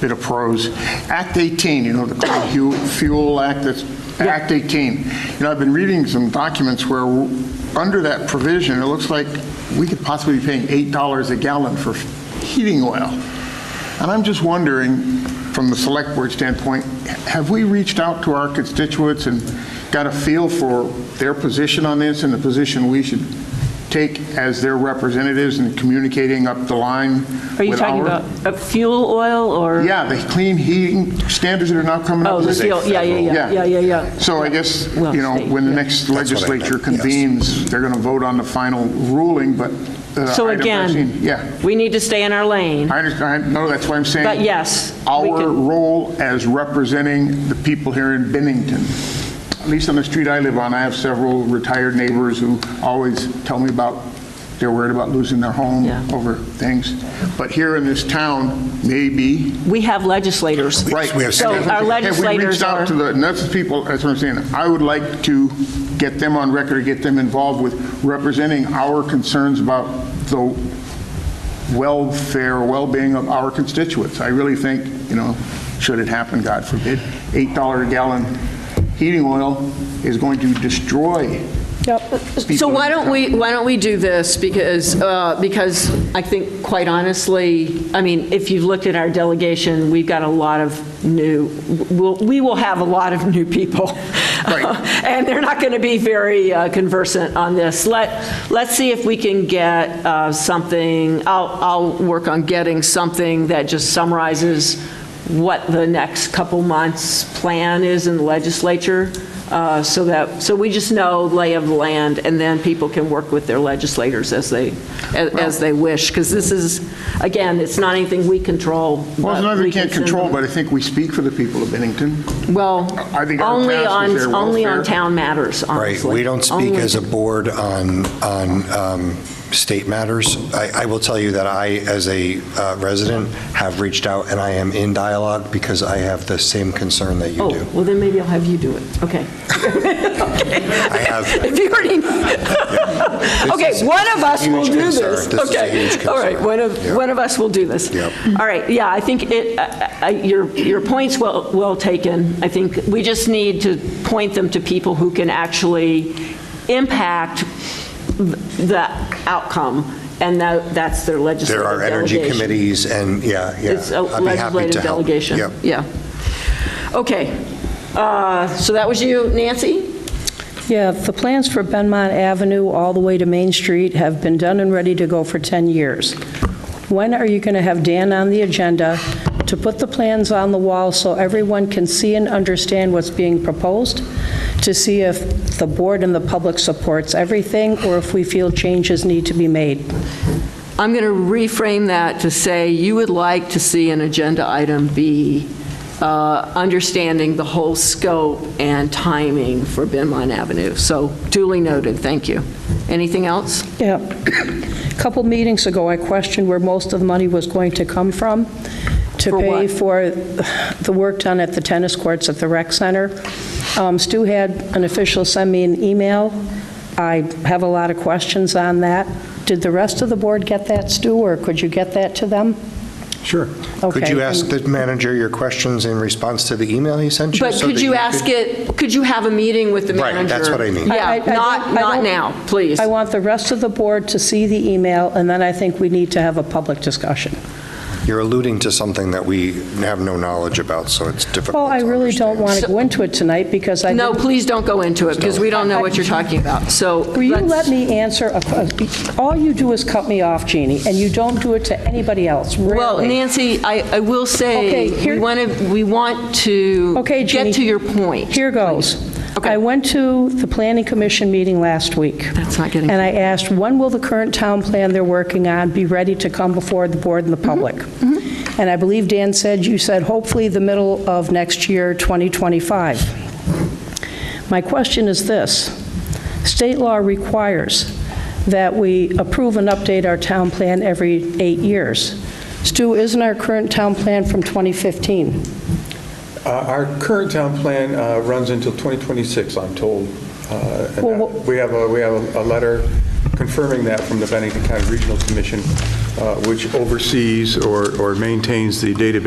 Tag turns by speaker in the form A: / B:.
A: bit of prose. Act 18, you know, the Clean Hu- Fuel Act, that's Act 18. You know, I've been reading some documents where, w- under that provision, it looks like we could possibly be paying $8 a gallon for heating oil. And I'm just wondering, from the Select Board standpoint, have we reached out to our constituents and got a feel for their position on this and the position we should take as their representatives in communicating up the line
B: Are you
A: with
B: talking
A: our-
B: about uh, fuel oil or?
A: Yeah, the clean heating standards that are now coming up.
B: Oh, the
A: with it.
B: fuel, yeah, yeah, yeah, yeah, yeah, yeah.
A: So I guess,
B: Well,
A: you know,
B: state,
A: when the
B: yeah.
A: next
C: what I meant,
A: legislature
C: yes.
A: convenes, they're going to vote on the final ruling, but. uh,
B: So
A: item
B: again,
A: 13 Yeah.
B: we need to stay in our lane.
A: I understand, I know, that's why I'm saying.
B: But yes, we
A: Our
B: can-
A: role as representing the people here in Bennington, at least on the street I live on, I have several retired neighbors who always tell me about, they're worried about losing their home
B: Yeah.
A: over things. But here in this town, maybe,
B: We have legislators.
A: Right.
C: We have
B: So
C: senators.
B: our
A: Have we
B: legislators
A: reached
B: are,
A: out to the, and that's the people, that's what I'm saying, I would like to get them on record, get them involved with representing our concerns about the welfare, well-being of our constituents. I really think, you know, should it happen, God forbid, $8 a gallon heating oil is going to destroy
D: So
A: people in
D: why
A: the
D: don't
A: town.
D: we, why don't we do this? Because, uh, because I think, quite honestly, I mean, if you've looked at our delegation, we've got a lot of new, we'll- we will have a lot of new people.
A: Right.
D: And they're not going to be very uh, conversant on this. Let, let's see if we can get uh, something, I'll, I'll work on getting something that just summarizes what the next couple months' plan is in the legislature, uh, so that, so we just know lay of the land, and then people can work with their legislators as they, as- as they wish, because this is, again, it's not anything we control.
A: Well, it's
D: but
A: not that we can't
D: send
A: control,
D: them-
A: but I think we speak for the people of Bennington.
D: Well,
A: I think our
D: only
A: task is
D: on,
A: their
D: only on
A: welfare.
D: town matters,
C: Right,
D: honestly.
C: we don't speak
D: Only-
C: as a board on, on um, state matters. I, I will tell you that I, as a uh, resident, have reached out and I am in dialogue because I have the same concern that you
D: Oh,
C: do.
D: well, then maybe I'll have you do it. Okay.
C: I have,
D: If you already,
C: is
D: okay,
C: a
D: one of us will
C: huge
D: do
C: concern.
D: this.
C: This is a
D: Okay.
C: huge
D: All right,
C: concern.
D: one of,
C: Yeah.
D: one of us will do this.
C: Yep.
D: All right, yeah, I think it, I- I- your, your point's well, well taken. I think we just need to point them to people who can actually impact the outcome, and that, that's their legislative
C: there are energy
D: delegation.
C: committees and, yeah, yeah.
D: It's a
C: I'd be happy to
D: legislative
C: help.
D: delegation.
C: Yep.
D: Yeah. Okay. Uh, So that was you, Nancy?
E: Yeah, the plans for Benmont Avenue all the way to Main Street have been done and ready to go for 10 years. When are you going to have Dan on the agenda to put the plans on the wall so everyone can see and understand what's being proposed, to see if the board and the public supports everything, or if we feel changes need to be made?
D: I'm going to reframe that to say you would like to see an agenda item be uh, understanding the whole scope and timing for Benmont Avenue. So duly noted, thank you. Anything else?
E: Yeah. A Couple meetings ago, I questioned where most of the money was going to come from to
D: For
E: pay
D: what?
E: for the work done at the tennis courts at the rec center. Um, Stu had an official send me an email. I have a lot of questions on that. Did the rest of the board get that, Stu, or could you get that to them?
C: Sure. Could
E: Okay.
C: you ask the manager your questions in response to the email he sent you?
D: But
C: so
D: could
C: that
D: you ask it, could you have a meeting with the
C: Right,
D: manager?
C: that's what I mean.
E: I- I- I
D: Yeah,
E: don't-
D: not,
E: I
D: not
E: don't-
D: now, please.
E: I want the rest of the board to see the email, and then I think we need to have a public discussion.
C: You're alluding to something that we have no knowledge about, so it's difficult
E: Well, I
C: to
E: really don't
C: understand.
E: want to go into it tonight because I
D: No,
E: didn't-
D: please don't go into it, because we don't know what you're talking about, so.
E: Will you
D: let's-
E: let me answer? a que- All you do is cut me off, Jeannie, and you don't do it to anybody else,
D: Well,
E: rarely.
D: Nancy, I, I will
E: Okay,
D: say, we
E: here-
D: want to, we want to
E: Okay, Jeannie.
D: get to your point.
E: Here goes.
D: Okay.
E: I went to the Planning Commission meeting last week.
D: That's not getting-
E: And I asked, when will the current town plan they're working on be ready to come before the board and the public? And I believe Dan said, you said hopefully the middle of next year, 2025. My question is this. State law requires that we approve and update our town plan every eight years. Stu, isn't our current town plan from 2015?
F: Uh, Our current town plan uh, runs until 2026, I'm told. Uh, and
E: Well,
F: that- We have a, we have a- a letter confirming that from the Bennington County Regional Commission, uh, which oversees or or maintains the database